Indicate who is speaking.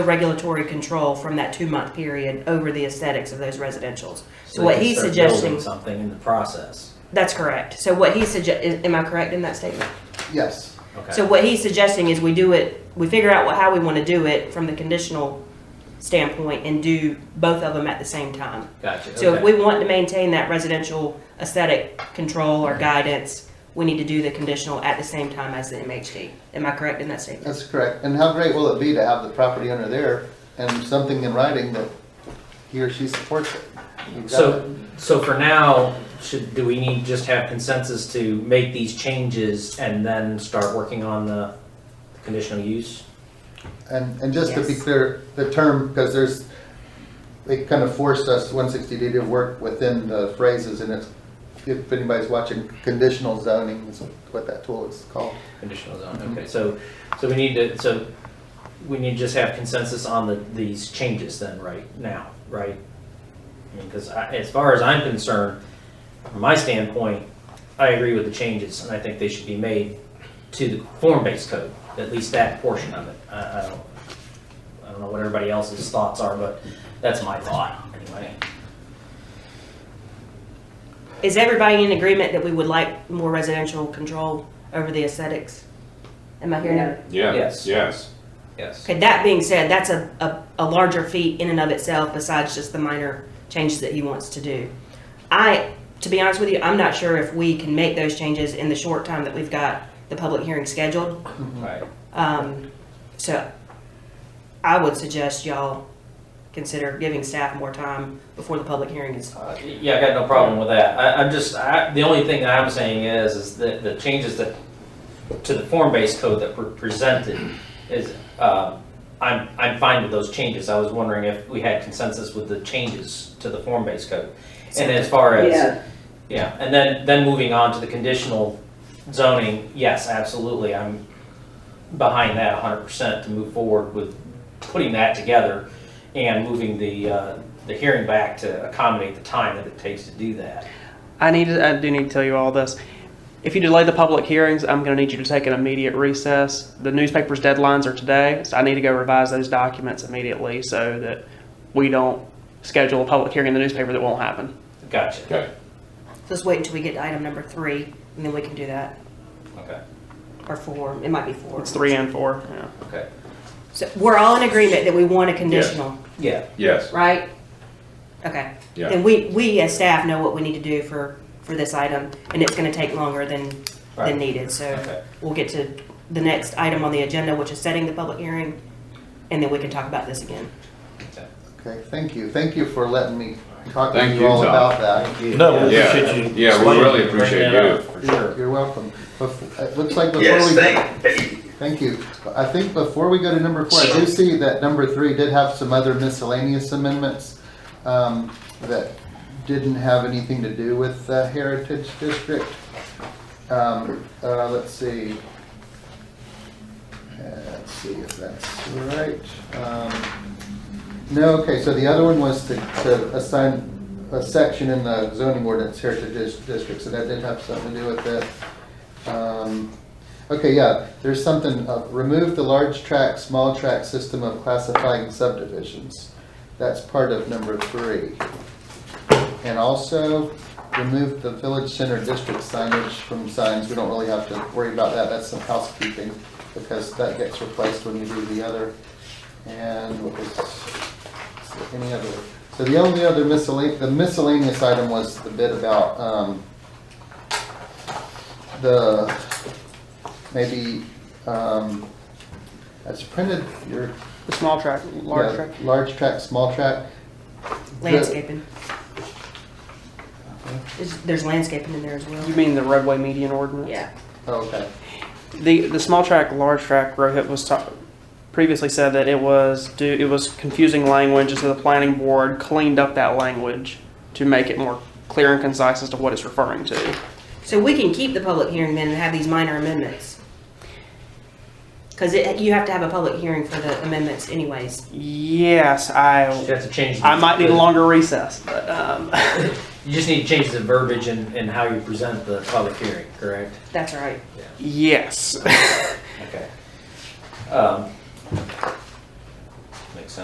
Speaker 1: the regulatory control from that two-month period over the aesthetics of those residentials. So what
Speaker 2: they can
Speaker 1: he's
Speaker 2: start building
Speaker 1: suggesting,
Speaker 2: Something in the process.
Speaker 1: that's correct. So what he sugge, is- am I correct in that statement?
Speaker 3: Yes,
Speaker 2: Okay.
Speaker 1: So what he's suggesting is we do it, we figure out what, how we want to do it from the conditional standpoint and do both of them at the same time.
Speaker 2: Gotcha.
Speaker 1: So if we
Speaker 2: okay.
Speaker 1: want to maintain that residential aesthetic control or guidance, we need to do the conditional at the same time as the MHD. Am I correct in that statement?
Speaker 3: that's correct. And how great will it be to have the property owner there and something in writing that he or she supports it? You've got it.
Speaker 2: So, so for now, should, do we need, just have consensus to make these changes and then start working on the conditional use?
Speaker 3: And, and just to be
Speaker 1: Yes.
Speaker 3: clear, the term, because there's, they kind of forced us, 160D, to work within the phrases and it's, if anybody's watching, conditional zoning is what that tool is called.
Speaker 2: Conditional zone, okay, so, so we need to, so we need to just have consensus on the, these changes then, right now, right? Because I, as far as I'm concerned, from my standpoint, I agree with the changes, and I think they should be made to the form-based code, at least that portion of it. I, I don't, I don't know what everybody else's thoughts are, but that's my thought, anyway.
Speaker 1: Is everybody in agreement that we would like more residential control over the aesthetics? Am I hearing that?
Speaker 4: Yeah.
Speaker 2: Yes.
Speaker 4: Yes.
Speaker 2: Yes.
Speaker 1: Okay, that being said, that's a, a, a larger feat in and of itself besides just the minor changes that he wants to do. I, to be honest with you, I'm not sure if we can make those changes in the short time that we've got the public hearing scheduled.
Speaker 2: Right.
Speaker 1: Um, so I would suggest y'all consider giving staff more time before the public hearing is.
Speaker 2: Uh, Yeah, I got no problem with that. I, I'm just, I, the only thing that I'm saying is, is that the changes that, to the form-based code that were presented is, um, I'm, I'm fine with those changes. I was wondering if we had consensus with the changes to the form-based code. And as far as, yeah, and then, then moving on to the conditional zoning, yes, absolutely, I'm behind that hundred percent to move forward with putting that together and moving the, uh, the hearing back to accommodate the time that it takes to do that.
Speaker 5: I need to, I do need to tell you all this. If you delay the public hearings, I'm going to need you to take an immediate recess. The newspaper's deadlines are today, so I need to go revise those documents immediately so that we don't schedule a public hearing in the newspaper that won't happen.
Speaker 2: Gotcha,
Speaker 4: Okay.
Speaker 1: Let's wait until we get to item number three and then we can do that,
Speaker 2: okay,
Speaker 1: or four, it might be four.
Speaker 5: It's three and four. Yeah.
Speaker 2: okay.
Speaker 1: So we're all in agreement that we want a conditional.
Speaker 2: Yeah,
Speaker 4: Yes.
Speaker 1: right? Okay.
Speaker 4: Yeah.
Speaker 1: Then we, we as staff know what we need to do for, for this item, and it's gonna take longer than,
Speaker 2: Right.
Speaker 1: than needed, so
Speaker 2: okay,
Speaker 1: we'll get to the next item on the agenda, which is setting the public hearing, and then we can talk about this again.
Speaker 2: okay.
Speaker 3: Okay, thank you. Thank you for letting me talk to
Speaker 4: Thank
Speaker 3: you
Speaker 4: you,
Speaker 3: all
Speaker 4: Tom.
Speaker 3: about that.
Speaker 6: No, we
Speaker 4: Yeah.
Speaker 6: appreciate you.
Speaker 4: Yeah, we
Speaker 6: explaining.
Speaker 4: really appreciate
Speaker 2: Bring that
Speaker 4: you.
Speaker 2: up, For
Speaker 3: You're
Speaker 2: sure.
Speaker 3: you're welcome. Bef- It looks like before we.
Speaker 7: Yes,
Speaker 3: go-
Speaker 7: thank,
Speaker 3: Thank you. I think before we go to number four, I do see that number three did have some other miscellaneous amendments um, that didn't have anything to do with the Heritage District. Um, uh, Let's see. Uh, Let's see if that's right. Um, No, okay, so the other one was to to assign a section in the zoning ordinance Heritage Dis- District, so that did have something to do with it. Um, Okay, yeah, there's something, uh, remove the large tract, small tract system of classifying subdivisions. That's part of number three. And also, remove the village center district signage from signs, we don't really have to worry about that, that's some housekeeping, because that gets replaced when you do the other. And what was, any other, so the only other miscellaneous, the miscellaneous item was the bit about, um, the, maybe, um, that's printed, your.
Speaker 5: The small track, large
Speaker 3: yeah,
Speaker 5: track.
Speaker 3: Large tract, small tract.
Speaker 1: Landscaping. There's- There's landscaping in there as well.
Speaker 5: You mean the roadway median ordinance?
Speaker 1: Yeah.
Speaker 3: Oh, Okay.
Speaker 5: The the small track, large track, Rohit was ta- previously said that it was do it was confusing language, and so the planning board cleaned up that language to make it more clear and concise as to what it's referring to.
Speaker 1: So we can keep the public hearing then and have these minor amendments. Cause it, you have to have a public hearing for the amendments anyways.
Speaker 5: Yes,
Speaker 2: You
Speaker 5: I
Speaker 2: have to change. the-
Speaker 5: I might need a longer recess, but um,
Speaker 2: You just need to change the verbiage and, and how you present the public hearing, correct?
Speaker 1: That's all right.
Speaker 5: yes.
Speaker 2: Okay. Um,